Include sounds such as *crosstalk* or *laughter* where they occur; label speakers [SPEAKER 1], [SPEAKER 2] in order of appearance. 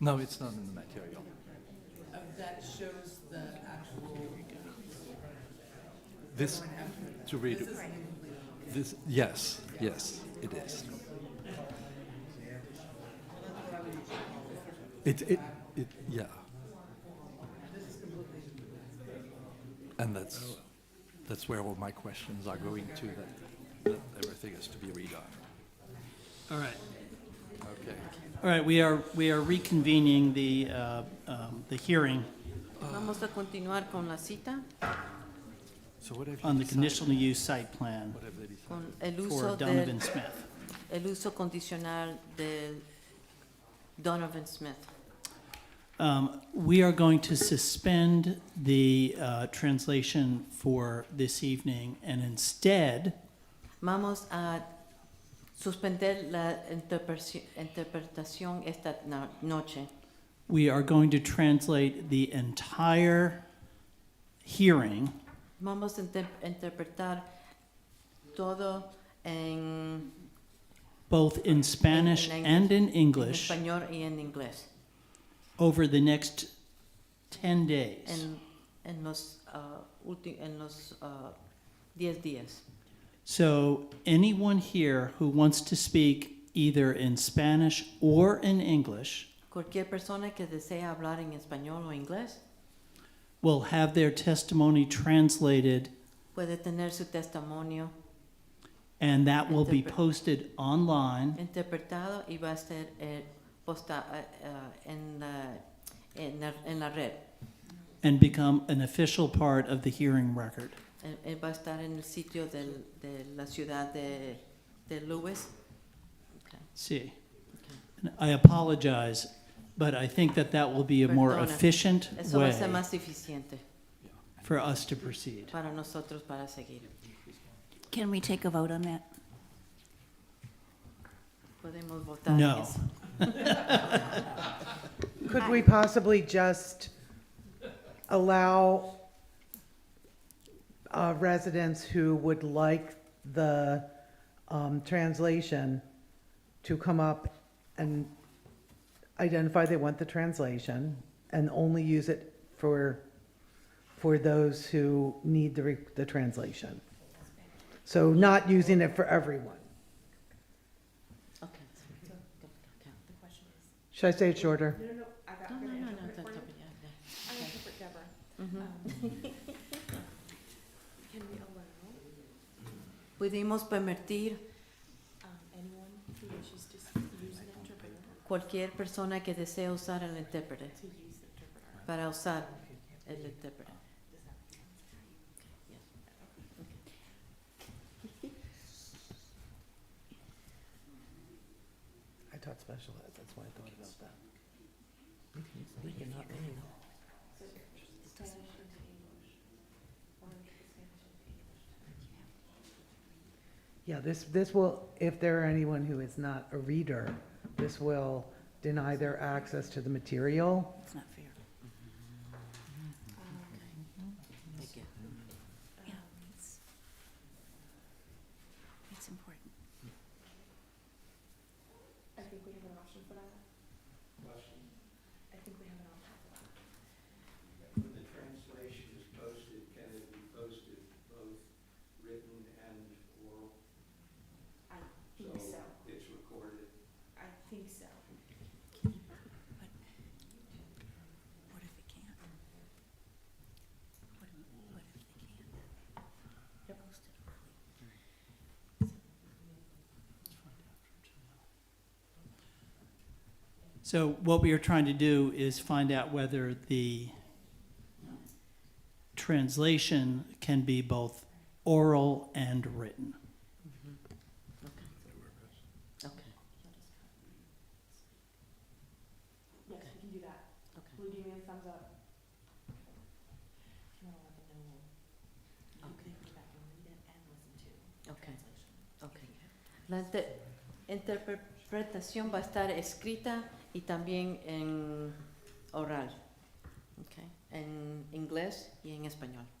[SPEAKER 1] No, it's not in the material.
[SPEAKER 2] Uh, That shows the actual,
[SPEAKER 1] This, to read, it- this, yes, yes, it is. It, it, it, yeah. And that's, that's where all my questions are going to, that, that everything is to be redone.
[SPEAKER 3] All right,
[SPEAKER 1] Okay.
[SPEAKER 3] all right, we are, we are reconvening the, uh, um, the hearing
[SPEAKER 4] Vamos a continuar con la cita,
[SPEAKER 1] So what have you
[SPEAKER 3] on the
[SPEAKER 1] decided?
[SPEAKER 3] conditional use site plan
[SPEAKER 1] What have they decided?
[SPEAKER 4] con el
[SPEAKER 3] for
[SPEAKER 4] uso
[SPEAKER 3] Donovan
[SPEAKER 4] del,
[SPEAKER 3] Smith.
[SPEAKER 4] el uso condicional de Donovan Smith.
[SPEAKER 3] Um, We are going to suspend the uh, translation for this evening, and instead,
[SPEAKER 4] Vamos a suspender la interpretaci- interpretación esta no- noche.
[SPEAKER 3] we are going to translate the entire hearing
[SPEAKER 4] Vamos a inter- interpretar todo en
[SPEAKER 3] both in Spanish
[SPEAKER 4] In- in
[SPEAKER 3] and in
[SPEAKER 4] en
[SPEAKER 3] English
[SPEAKER 4] español y en inglés.
[SPEAKER 3] over the next 10 days.
[SPEAKER 4] En, en los ah, ulti- en los ah, 10 días.
[SPEAKER 3] So anyone here who wants to speak either in Spanish or in English
[SPEAKER 4] Cualquier persona que desea hablar en español o inglés
[SPEAKER 3] will have their testimony translated,
[SPEAKER 4] puede tener su testimonio
[SPEAKER 3] and that will be
[SPEAKER 4] Interpre-
[SPEAKER 3] posted online
[SPEAKER 4] interpretado y va a ser eh, posta eh, eh, en, la, en, la, en la red.
[SPEAKER 3] and become an official part of the hearing record.
[SPEAKER 4] Eh, eh, va a estar en el sitio del- de la ciudad de, de Lewis.
[SPEAKER 3] See, And I apologize, but I think that that will be a more
[SPEAKER 4] Perdona.
[SPEAKER 3] efficient
[SPEAKER 4] Eso va a
[SPEAKER 3] way
[SPEAKER 4] ser más eficiente
[SPEAKER 3] for us to proceed.
[SPEAKER 4] para nosotros para seguir.
[SPEAKER 5] Can we take a vote on that?
[SPEAKER 4] Podemos votar.
[SPEAKER 3] No,
[SPEAKER 4] yes.
[SPEAKER 6] Could we possibly just allow uh, residents who would like the um, translation to come up and identify they want the translation and only use it for, for those who need the, re- the translation? So not using it for everyone.
[SPEAKER 4] Okay.
[SPEAKER 6] Should I say it shorter?
[SPEAKER 4] No, no, no, no, no, no, yeah, yeah.
[SPEAKER 7] Ah. *laughs* Can we allow
[SPEAKER 4] Pudimos permitir
[SPEAKER 7] um, anyone who wishes to s- use an interpreter
[SPEAKER 4] cualquier persona que desee usar el intérprete
[SPEAKER 7] to use the interpreter?
[SPEAKER 4] para usar el intérprete.
[SPEAKER 6] I taught special ed, that's why I thought about that. Yeah, this, this will, if there are anyone who is not a reader, this will deny their access to the material.
[SPEAKER 5] It's not fair.
[SPEAKER 4] Thank you.
[SPEAKER 5] Yeah, it's, it's important.
[SPEAKER 7] I think we have an option for that. I think we have an option.
[SPEAKER 8] When the translation is posted, can it be posted both written and oral?
[SPEAKER 7] I think so.
[SPEAKER 8] It's recorded.
[SPEAKER 7] I think so.
[SPEAKER 5] What if it can't? What if, what if they can't? They're posted early.
[SPEAKER 3] so what we are trying to do is find out whether the translation can be both oral and written.
[SPEAKER 4] Okay.
[SPEAKER 7] Yes, we can do that.
[SPEAKER 4] Okay.
[SPEAKER 7] Will you give me a thumbs up? If you wanna let them know, you
[SPEAKER 4] Okay.
[SPEAKER 7] can go back and read it and listen to
[SPEAKER 4] Okay.
[SPEAKER 7] translation.
[SPEAKER 4] Okay. La inter- interpretación va a estar escrita y también en oral, okay, en inglés y en español.